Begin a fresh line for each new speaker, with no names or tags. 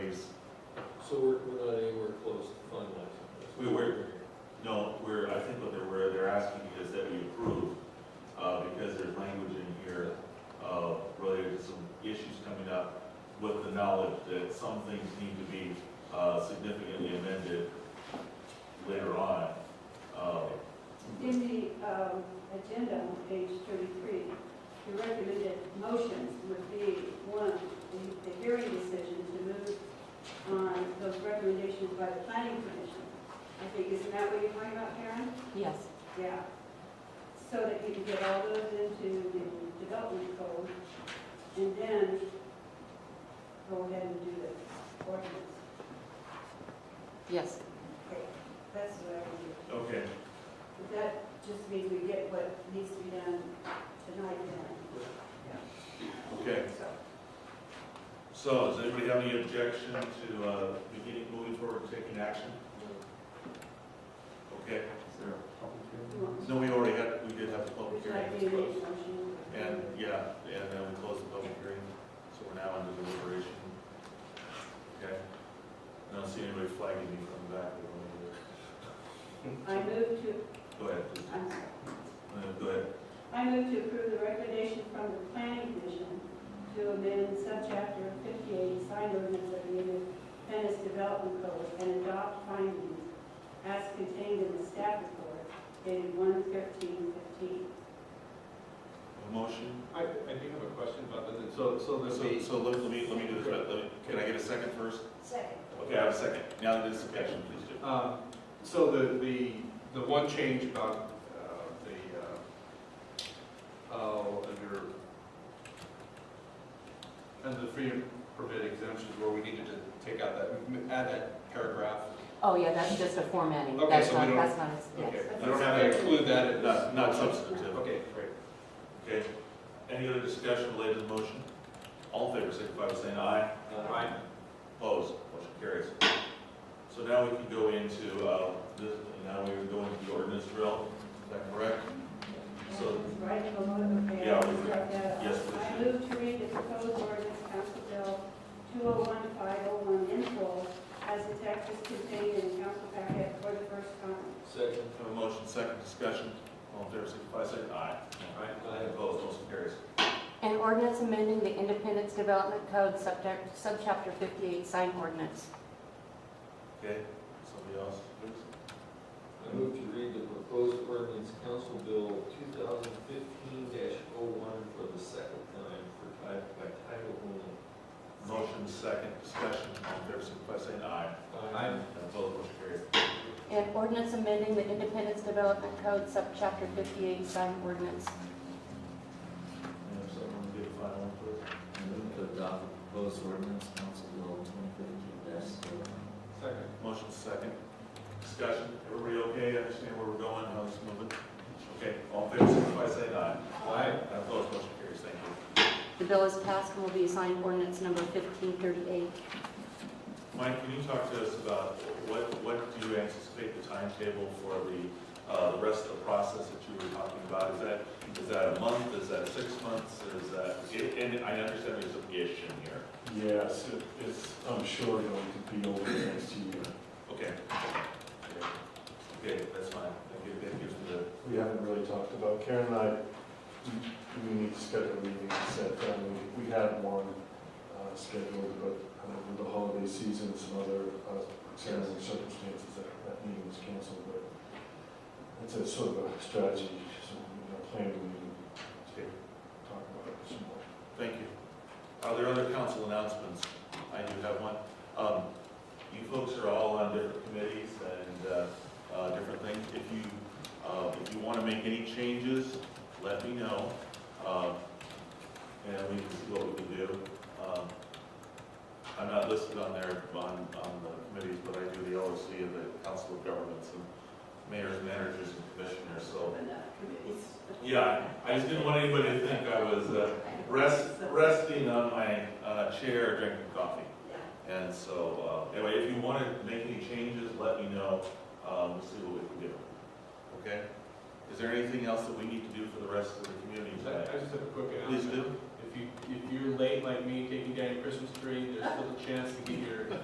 uh, things need to be uh, significantly amended later on. Um,
In the um, agenda on page 33, the recommended motions would be, one, the- the hearing decision to move on those recommendations by the planning commission. I think, isn't that what you're talking about, Karen?
Yes.
Yeah. So that you can get all those into the development code, and then go ahead and do the ordinance.
Yes.
Okay, That's what I would do.
Okay,
But That just means we get what needs to be done tonight then.
okay.
So,
So does anybody have any objection to uh, beginning, moving forward, and taking action? Okay,
you want-
no, we already had, we did have the public
Would you
hearing. It's
like me to make
closed.
a motion?
And, yeah, and then we closed the public hearing, so we're now under deliberation. Okay? I don't see anybody flagging me from the back. or anything.
I move to,
Go ahead,
I'm sorry.
Uh, go ahead.
I move to approve the recommendation from the planning commission to amend subchapter 58 sign ordinance of the Union Venice Development Code and adopt findings as contained in the staff report dated 1/13/15.
A motion?
I, I do have a question about this. So, so
So, so let let me, let me do this, right, let me, can I get a second first?
Second.
Okay, I have a second. Now the discussion, please do.
Um, So the, the, the one change about uh, the, uh, oh, under, under the freedom permit exemptions where we needed to take out that, m- add that paragraph.
Oh, yeah, that's just a formatting.
Okay,
That's
so we
not,
don't-
that's not, a-
Okay,
yes.
I don't have to include that in
Not,
this.
not substantive.
Okay, great.
Okay. Any other discussion related to the motion? All in favor, signify by saying aye.
Uh, Right.
Opposed, motion carries. So now we can go into, uh, this, now we go into the ordinance drill, is that correct? So,
Right, the one, okay,
Yeah,
I'll
we-
start that off.
yes, please.
I move to read the proposed ordinance, Council Bill 201501 in full, as the text is contained in the council packet for the first time.
Second.
have a motion, second discussion, all in favor, signify by saying aye. Opposed, motion carries.
An ordinance amending the Independence Development Code, subject, subchapter 58, sign ordinance.
Okay, somebody else, please?
I move to read the proposed ordinance Council Bill 2015-01 for the second time for title, by title only.
Motion, second discussion, all in favor, signify by saying aye.
Aye.
Opposed, motion carries.
An ordinance amending the Independence Development Code, subchapter 58, sign ordinance.
And if someone did a final one, please.
I move to adopt the proposed ordinance, Council Bill twenty fifteen oh
Second.
Motion, second discussion, everybody okay, understand where we're going, how this is moving? Okay, all in favor, signify by saying aye.
Aye.
Opposed, motion carries, thank you.
The bill is passed and will be assigned ordinance number 1538.
Mike, can you talk to us about what, what do you anticipate the timetable for the, uh, the rest of the process that you were talking about? Is that, is that a month, is that six months, is that, and I understand there's a issue here.
Yes, it- it's, I'm sure it'll be over the next year.
Okay. Okay, that's fine, that gives, that gives me the,
We haven't really talked about, Karen and I, we- we need to schedule a meeting to set down, we, we had one uh, scheduled, but uh, with the holiday season and some other uh, extenuating circumstances, that, that meeting was canceled, but it's a sort of a strategy, so we're gonna plan a meeting
okay,
to talk about it some more.
thank you. Are there other council announcements? I do have one. Um, you folks are all on different committees and, uh, uh, different things. If you, uh, if you want to make any changes, let me know. Um, and we can see what we can do. Um, I'm not listed on there, on, on the committees, but I do the LOC and the Council of Governments and mayors, managers, and commissioners, so.
Open up committees.
Yeah, I just didn't want anybody to think I was, uh, rest, resting on my, uh, chair drinking coffee.
Yeah.
And so, uh, anyway, if you want to make any changes, let me know, um, we'll see what we can do. Okay? Is there anything else that we need to do for the rest of the community
I
today?
I just have a quick announcement.
Please do.
If you, if you're late like me taking down your Christmas tree, there's still a chance to get your